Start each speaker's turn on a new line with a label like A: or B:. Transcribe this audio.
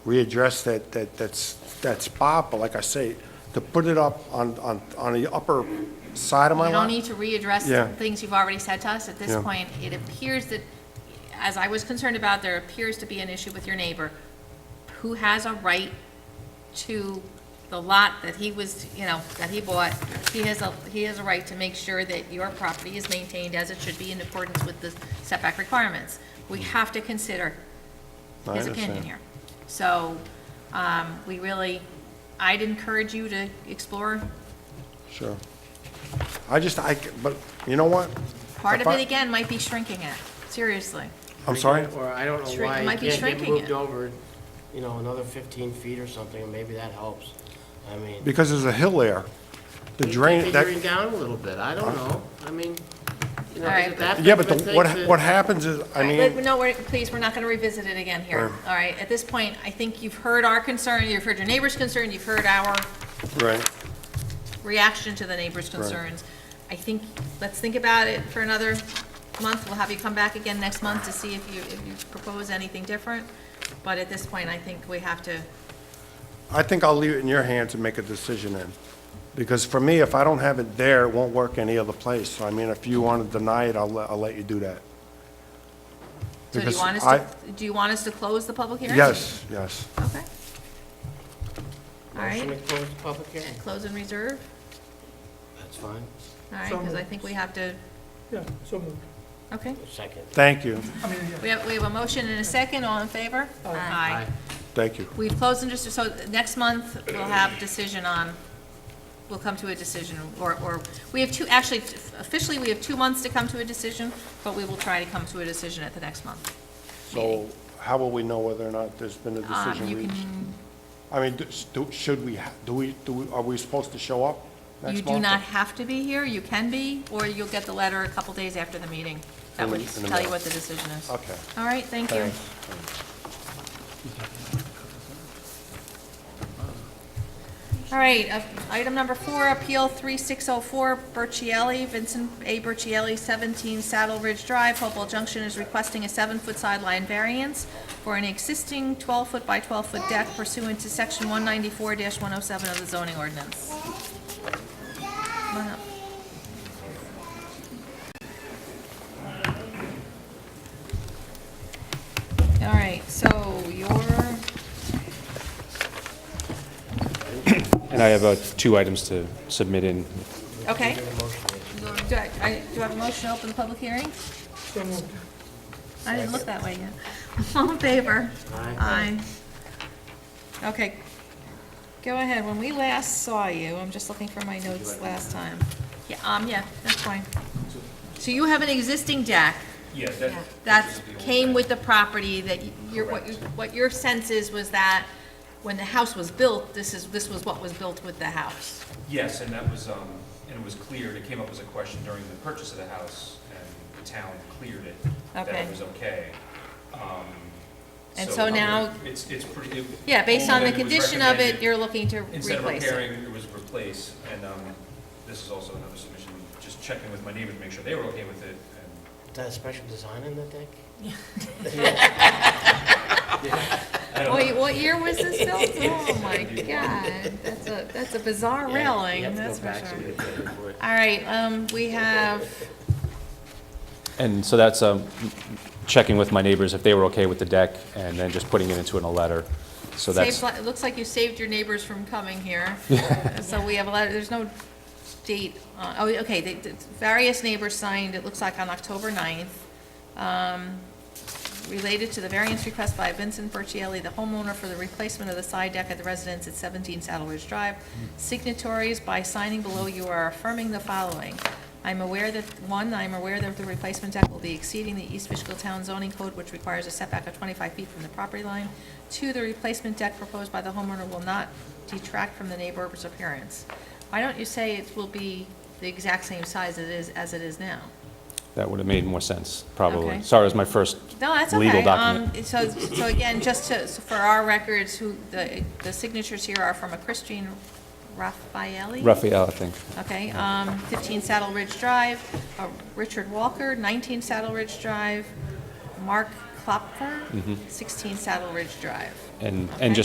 A: readdress that, that, that's, that spot, but like I say, to put it up on, on, on the upper side of my
B: You don't
A: lot.
B: need to readdress
A: Yeah.
B: things you've already said to us at this
A: Yeah.
B: point. It appears that, as I was concerned about, there appears to be an issue with your neighbor who has a right to the lot that he was, you know, that he bought. He has a, he has a right to make sure that your property is maintained as it should be in accordance with the setback requirements. We have to consider
A: Hmm. I
B: his opinion
A: understand.
B: here. So, um, we really, I'd encourage you to explore
A: Sure. I just, I, c- but, you know what?
B: Part
A: If
B: of
A: I-
B: it, again, might be shrinking it, seriously.
A: I'm sorry?
C: Or I don't know
B: Shrink-
C: why
B: it
C: it
B: might be
C: can't get
B: shrinking
C: moved
B: it.
C: over, you know, another fifteen feet or something, and maybe that helps. I mean.
A: Because there's a hill there. The drain,
C: Figuring
A: that,
C: down a little bit, I don't know, I mean, you know,
B: All
C: is
B: right.
C: it that big
A: yeah, but
C: of a
A: the,
C: thing
A: what,
C: to-
A: what happens is, I
B: But
A: mean,
B: no, we're, please, we're not gonna revisit it again here, all right? At this point, I think you've heard our concern, you've heard your neighbor's concern, you've heard our
A: right,
B: reaction to the neighbor's concerns. I think, let's think about it for another month, we'll have you come back again next month to see if you, if you propose anything different. But at this point, I think we have to,
A: I think I'll leave it in your hands and make a decision then. Because for me, if I don't have it there, it won't work any other place. So I mean, if you want to deny it, I'll, let- I'll let you do that.
B: so do you
A: Because
B: want us
A: I-
B: to, do you want us to close the public hearing?
A: Yes, yes.
B: Okay. All
C: Motion to
B: right,
C: close the public hearing,
B: close and reserve,
C: that's fine,
B: all right,
D: So
B: because I
D: moved.
B: think we have to,
D: Yeah, so moved.
B: okay.
C: second.
A: Thank you,
B: We have, we have a motion and a second, all in favor? Aye.
A: thank you.
B: We've closed and just, so next month, we'll have decision on, we'll come to a decision, or, or, we have two, actually, officially, we have two months to come to a decision, but we will try to come to a decision at the next month.
A: So how will we know whether or not there's been a
B: Um,
A: decision
B: You
A: reached?
B: can,
A: I mean, do- s- do- should we, ha- do we, do, we- are we supposed to show up next
B: you
A: month?
B: do not have to be here, you can be, or you'll get the letter a couple days after the meeting. That
A: In the- e-,
B: would
A: in the
B: tell you
A: mail.
B: what the decision is.
A: Okay.
B: All right, thank you.
A: Thanks.
B: All right, uh, item number four, Appeal 3604, Burchielli, Vincent A. Burchielli, 17 Saddle Ridge Drive, Hopewell Junction, is requesting a seven-foot sideline variance for an existing 12-foot by 12-foot deck pursuant to Section 194-107 of the zoning ordinance. Come on up. All right, so your
E: And I have uh, two items to submit in.
B: Okay. Do I, I- do I have a motion to open the public hearing?
D: So moved.
B: I didn't look that way yet. All in favor? Aye. Okay. Go ahead, when we last saw you, I'm just looking for my notes last time. Yeah, um, yeah, that's fine. So you have an existing deck
F: Yes,
B: that came with the property that you- your, what you, what your sense is was that when the house was built, this is, this was what was built with the house.
F: Yes, and that was, um, and it was cleared, it came up as a question during the purchase of the house, and the town cleared it, that
B: Okay.
F: it was okay. Um,
B: And so now-
F: It's, it's pretty. it-
B: Yeah, based on
F: older
B: the
F: than was
B: condition of it,
F: recommended.
B: you're looking to replace it.
F: Instead of repairing, it was replaced, and, um, this is also another submission, just checking with my neighbors, to make sure they were okay with it, and
C: Is that a special design in the deck?
F: I don't know.
B: Wait, what year was this built? Oh my god, that's a, that's a bizarre
C: You
B: railing,
C: have to go
B: that's for
C: back so we
B: sure.
C: can get the report.
B: All right, um, we have,
E: And so that's um, checking with my neighbors if they were okay with the deck, and then just putting it into in a letter. So
B: saved,
E: that's,
B: li- it looks like you saved your neighbors from coming here. So we have a letter, there's no date, uh, oh, okay, the, the various neighbors signed, it looks like on October ninth. Um, related to the variance request by Vincent Burchielli, the homeowner for the replacement of the side deck at the residence at 17 Saddle Ridge Drive. Signatories, by signing below, you are affirming the following. I'm aware that, one, I'm aware that the replacement deck will be exceeding the East Fishkill Town zoning code, which requires a setback of 25 feet from the property line. Two, the replacement deck proposed by the homeowner will not detract from the neighbor's appearance. Why don't you say it will be the exact same size it is, as it is now?
E: that would have made more sense,
B: Okay.
E: probably. Sorry, it was my first
B: No, that's okay.
E: legal
B: Um,
E: document.
B: So, so again, just to, so for our records, who, the, the signatures here are from a Christine Raffaelli?
E: Raphael, I think.
B: Okay, um, 15 Saddle Ridge Drive, uh, Richard Walker, 19 Saddle Ridge Drive, Mark Klopfer, 16 Saddle Ridge Drive.
E: Mm-hmm.
F: And,
B: Okay.
F: and just